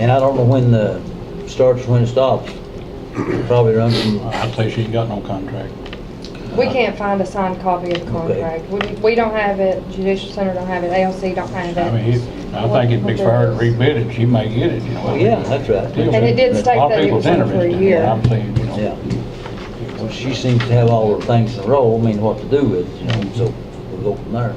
And I don't know when the, starts, when it stops. Probably runs from, I'd say she ain't got no contract. We can't find a signed copy of the Okay. contract. We, we don't have it, Judicial Center don't have it, ALC don't have I mean, it. it- I think it'd be fair to rebid it, she may get it, you know. Well, yeah, that's right. And it did A lot of state that it people's was on for a interested, year. and I'm saying, you yeah. know, Well, she seems to have all her things in a row, I mean, what to do with, it, you know, so we'll go from there.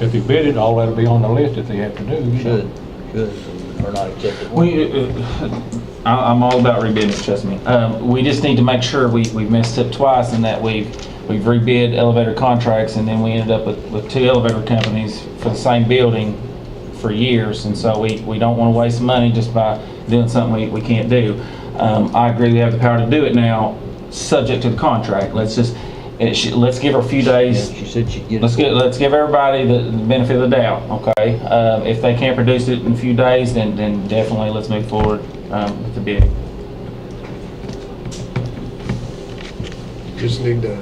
if you bid it, all that'll be on the list if they have to do, you know. Should, should, or not accept it. We, uh, I- I'm all about rebidding, trust me. Um, we just need to make sure we, we messed up twice in that we've, we've rebid elevator contracts and then we ended up with, with two elevator companies for the same building for years. And so we, we don't want to waste money just by doing something we, we can't do. Um, I agree we have the power to do it now, subject to the contract. Let's just, it should, let's give her a few days Yeah, She said she'd get it. Let's get, let's give everybody the the benefit of the doubt, okay? Um, If they can't produce it in a few days, then, then definitely let's move forward um, with the bid. Just need to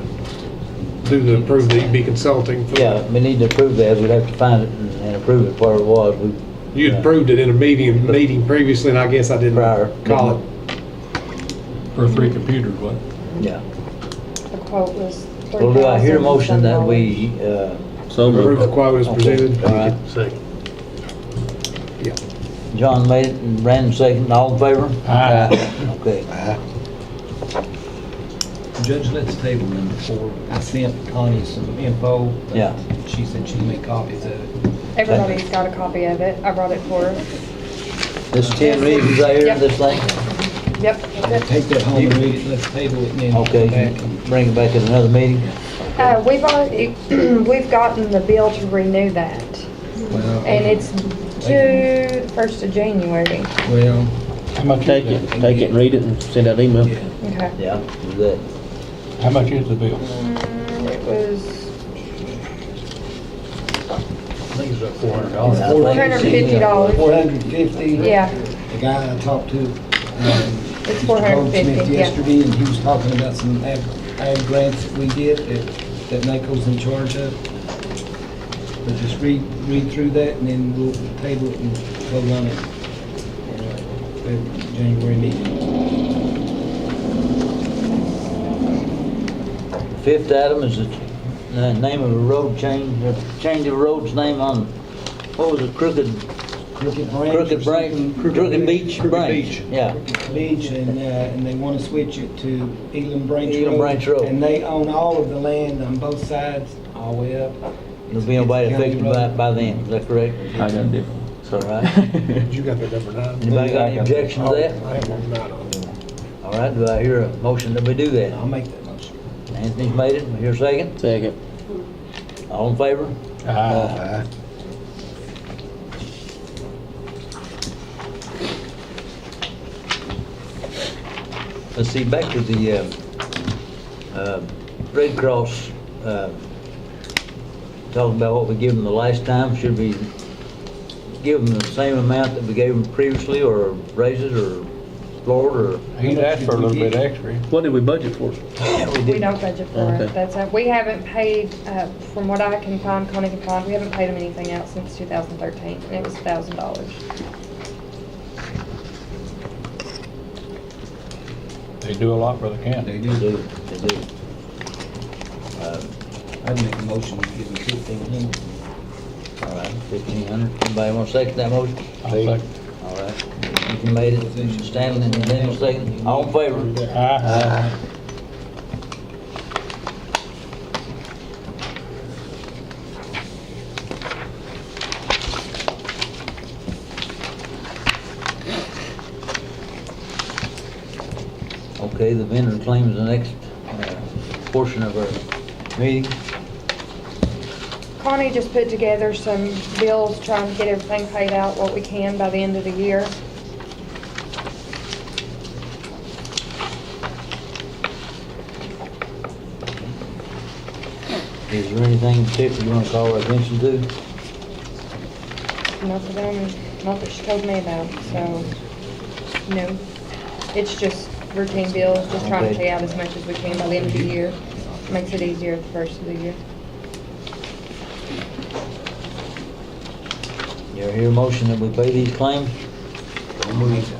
do the, approve the EB Consulting. for- Yeah, we need to approve that, we'd have to find it and and approve it where it was, we, You had approved it in a meeting, meeting previously, and I guess I didn't Prior. call it. For three computers, what? yeah. The quote was three thousand. Well, do I hear a motion that we, uh, So Approve the moved. quote as presented. All right. Second. Yeah. John made it and Brandon seconded, all in favor? Aye. Okay, Judge, let's table number four. I sent Connie some info. but Yeah. She said she'd make copies of it. Everybody's got a copy of it. I brought it for her. this ten reasons I hear in this thing, Yep. Take that home and read it. Let's table it and then. come okay, back and- bring it back at another meeting. Uh, we've already, we've gotten the bill to renew that, Well, and it's due the first of January. Well, How much Take is it, that? take it, read it, and send out email. yeah. Okay. Yeah, do that. How much is the bill? Mm, It was I think it's about four hundred And I think- four hundred and fifty dollars. Four hundred and fifty? Yeah, The guy I talked to. um, It's 450, yeah. Yesterday, and he was talking about some ag, ag grants that we get that, that NACO's in charge of. But just read, read through that and then we'll table it and vote on it. uh, at January meeting. Fifth item is the uh, name of a road change, uh, change of road's name on, what was it, Crooked, Crooked Branch. Crooked Branch, Crooked Beach Branch? Yeah, Beach and, uh, and they want to switch it to Elam Branch Road. Elam Branch Road. And they own all of the land on both sides, all the way up. there'll be nobody affected by, by then, is that correct? I got a different. All right. You got the number nine? Anybody got any objection to that? I have number nine on there. All right, do I hear a motion that we do that? I'll make that motion. Anthony's made it, we hear a second, Second. all in favor? Uh, Aye. Let's see, back to the, uh, uh, Red Cross, uh, talking about what we gave them the last time, should we give them the same amount that we gave them previously, or raise it, or lower, it, He'd asked for a little bit extra. What did we budget for? or? we don't budget for it. Okay. That's, uh, we haven't paid, uh, from what I can find, Connie can find, we haven't paid them anything else since two thousand thirteen, and it was thousand dollars. They do a lot for the county. They They do, do. they do. Uh, I'd make a motion to give them fifteen hundred. All right, fifteen hundred, anybody want to second that motion? I'll second. All right, you made it, Stanley and Daniel second, all in favor? Aye. Okay, the vendor claim is the next uh, portion of our meeting. Connie just put together some bills, trying to get everything paid out, what we can by the end of the year. Is there anything in particular you want to call our attention to? Not that I'm, not that she told me about, so, no. It's just routine bills, just trying to Okay. pay out as much as we can by the end of the year. Makes it easier at the first of the year. You hear a motion that we pay these claims? Mooney's